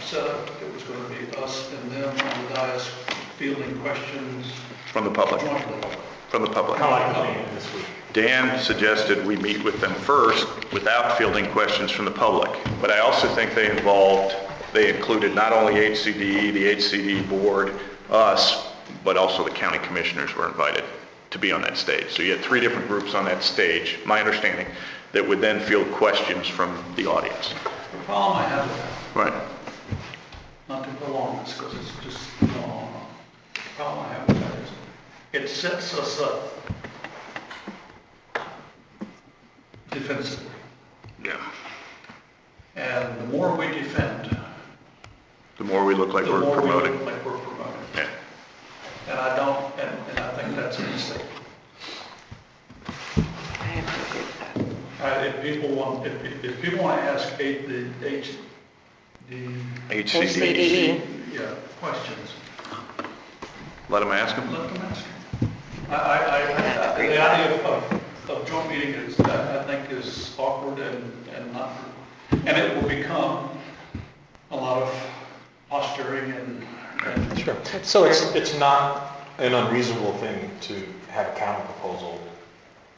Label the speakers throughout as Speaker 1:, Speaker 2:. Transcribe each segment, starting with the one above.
Speaker 1: set up, it was gonna be us and them on the dais fielding questions
Speaker 2: From the public,
Speaker 1: jointly.
Speaker 2: from the public.
Speaker 3: How I came in this week.
Speaker 2: Dan suggested we meet with them first without fielding questions from the public. But I also think they involved, they included not only HCDE, E, the HCD board, us, but also the county commissioners were invited to be on that stage. So you had three different groups on that stage, my understanding, that would then field questions from the audience.
Speaker 1: The problem I have with that,
Speaker 2: Right.
Speaker 1: not to prolong this, because it's just, no, the problem I have with that is, it sets us up defensively.
Speaker 2: Yeah.
Speaker 1: And the more we defend,
Speaker 2: The more we look like
Speaker 1: the
Speaker 2: we're
Speaker 1: more we
Speaker 2: promoting.
Speaker 1: look like we're promoting.
Speaker 2: Yeah.
Speaker 1: And I don't, and, and I think that's a mistake.
Speaker 4: I have to agree with that.
Speaker 1: Uh, if people want, if, if- if people want to ask eight, the, H, the,
Speaker 2: E. HCDE,
Speaker 1: yeah, questions,
Speaker 2: let them ask them.
Speaker 1: let them ask them. I, I, I,
Speaker 4: agree.
Speaker 1: the idea of, of- of joint meeting is, I, I think is awkward and, and not, and it will become a lot of posturing and, and.
Speaker 3: Sure. So it's, it's not an unreasonable thing to have a counter proposal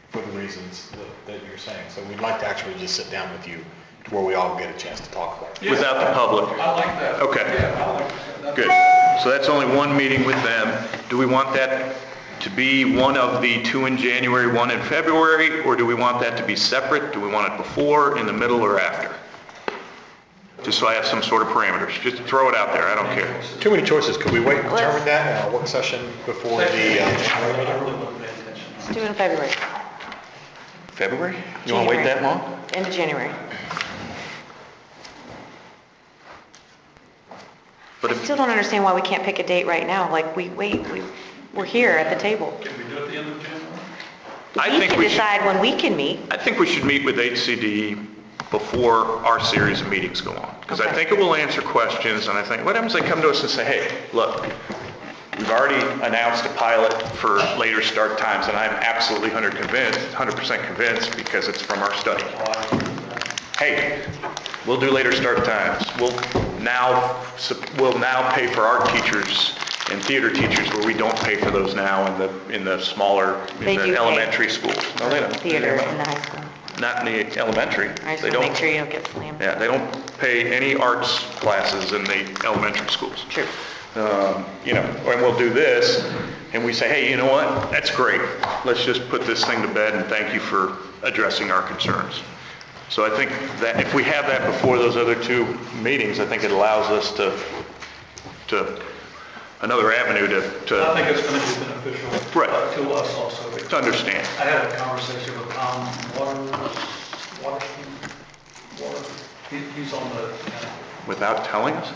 Speaker 3: for the reasons that, that you're saying. So we'd like to actually just sit down with you to where we all get a chance to talk about it.
Speaker 1: Yeah.
Speaker 2: Without the public.
Speaker 1: I like that.
Speaker 2: Okay.
Speaker 1: Yeah, I like that. That's-
Speaker 2: Good. So that's only one meeting with them. Do we want that to be one of the two in January, one in February, or do we want that to be separate? Do we want it before, in the middle, or after? Just so I have some sort of parameters. Just throw it out there. I don't care.
Speaker 3: Too many choices. Could we wait and determine that in our work session before the,
Speaker 1: I
Speaker 3: uh,
Speaker 1: really wouldn't pay attention.
Speaker 4: Let's do it in February.
Speaker 2: February?
Speaker 4: You wanna wait that long? End of January.
Speaker 2: But
Speaker 4: I
Speaker 2: if,
Speaker 4: still don't understand why we can't pick a date right now, like, we, wait, we, we're here at the table.
Speaker 1: Can we do it at the end of January?
Speaker 2: I think we
Speaker 4: can
Speaker 2: should-
Speaker 4: decide when we can meet.
Speaker 2: I think we should meet with HCD E before our series of meetings go on. Because I
Speaker 4: Okay.
Speaker 2: think it will answer questions, and I think, what happens if they come to us and say, hey, look, we've already announced a pilot for later start times, and I'm absolutely 100 convinced, 100% convinced, because it's from our study. Hey, we'll do later start times. We'll now, sup- we'll now pay for art teachers and theater teachers where we don't pay for those now in the, in the smaller,
Speaker 4: They
Speaker 2: in
Speaker 4: do pay.
Speaker 2: the elementary schools. No, they don't.
Speaker 4: Theater in the high school.
Speaker 2: Not in the elementary.
Speaker 4: I just
Speaker 2: They
Speaker 4: want to
Speaker 2: don't.
Speaker 4: make sure you don't get slammed.
Speaker 2: Yeah, they don't pay any arts classes in the elementary schools.
Speaker 4: True.
Speaker 2: Um, You know, and we'll do this, and we say, hey, you know what? That's great. Let's just put this thing to bed, and thank you for addressing our concerns. So I think that if we have that before those other two meetings, I think it allows us to, to, another avenue
Speaker 1: I
Speaker 2: to, to
Speaker 1: think it's going to be beneficial uh,
Speaker 2: Right.
Speaker 1: to us also.
Speaker 2: to understand.
Speaker 1: I had a conversation with Tom Waters, Waterson, Water, he, he's on the, uh,
Speaker 2: Without telling us?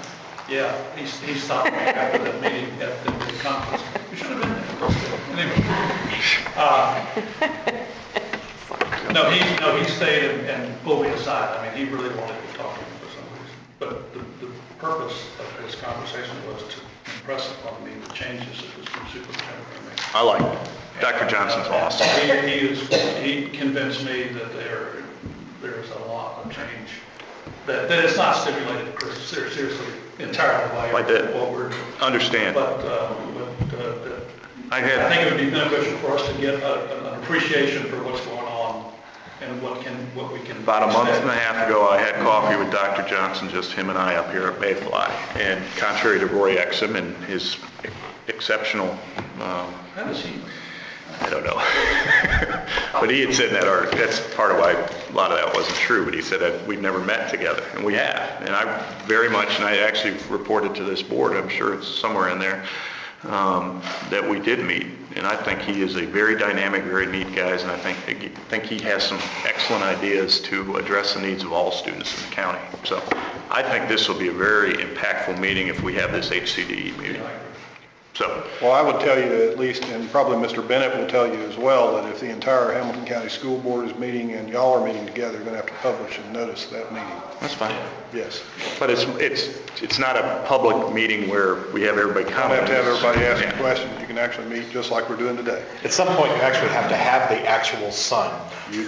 Speaker 1: yeah, he's, he stopped me after the meeting, at the the conference. You should have been there. Anyway. uh, No, he, no, he stayed and- and pulled me aside. I mean, he really wanted to talk to me for some reason. But the, the purpose of his conversation was to impress upon me the changes that this new superintendent made.
Speaker 2: I like it. Dr. Johnson's awesome.
Speaker 1: He, he is, he convinced me that there, there's a lot of change, that, that it's not stimulated, Chris, ser- seriously, entirely
Speaker 2: I
Speaker 1: by
Speaker 2: did.
Speaker 1: what we're doing.
Speaker 2: Understand.
Speaker 1: But, uh, but, uh, that-
Speaker 2: I
Speaker 1: I
Speaker 2: had,
Speaker 1: think it would be beneficial for us to get a- an appreciation for what's going on and what can, what we can.
Speaker 2: about a month and a
Speaker 1: expect.
Speaker 2: half ago, I had coffee with Dr. Johnson, just him and I up here at Mayfly. And contrary to Roy Exum and his exceptional, um,
Speaker 1: How does he,
Speaker 2: I don't know. But he had said in that article, that's part of why a lot of that wasn't true, but he said that we'd never met together, and we have. And I very much, and I actually reported to this board, I'm sure it's somewhere in there, um, that we did meet. And I think he is a very dynamic, very neat guy, and I think, I think he has some excellent ideas to address the needs of all students in the county. So I think this will be a very impactful meeting if we have this HCDE E meeting. So,
Speaker 5: Well, I would tell you at least, and probably Mr. Bennett will tell you as well, that if the entire Hamilton County School Board is meeting and y'all are meeting together, you're going to have to publish and notice that meeting.
Speaker 2: that's fine.
Speaker 5: Yes.
Speaker 2: But it's, it's, it's not a public meeting where we have everybody
Speaker 5: You
Speaker 2: comment.
Speaker 5: don't have to have everybody
Speaker 2: Yeah.
Speaker 5: asking questions. You can actually meet just like we're doing today.
Speaker 3: at some point, you actually have to have the actual sun.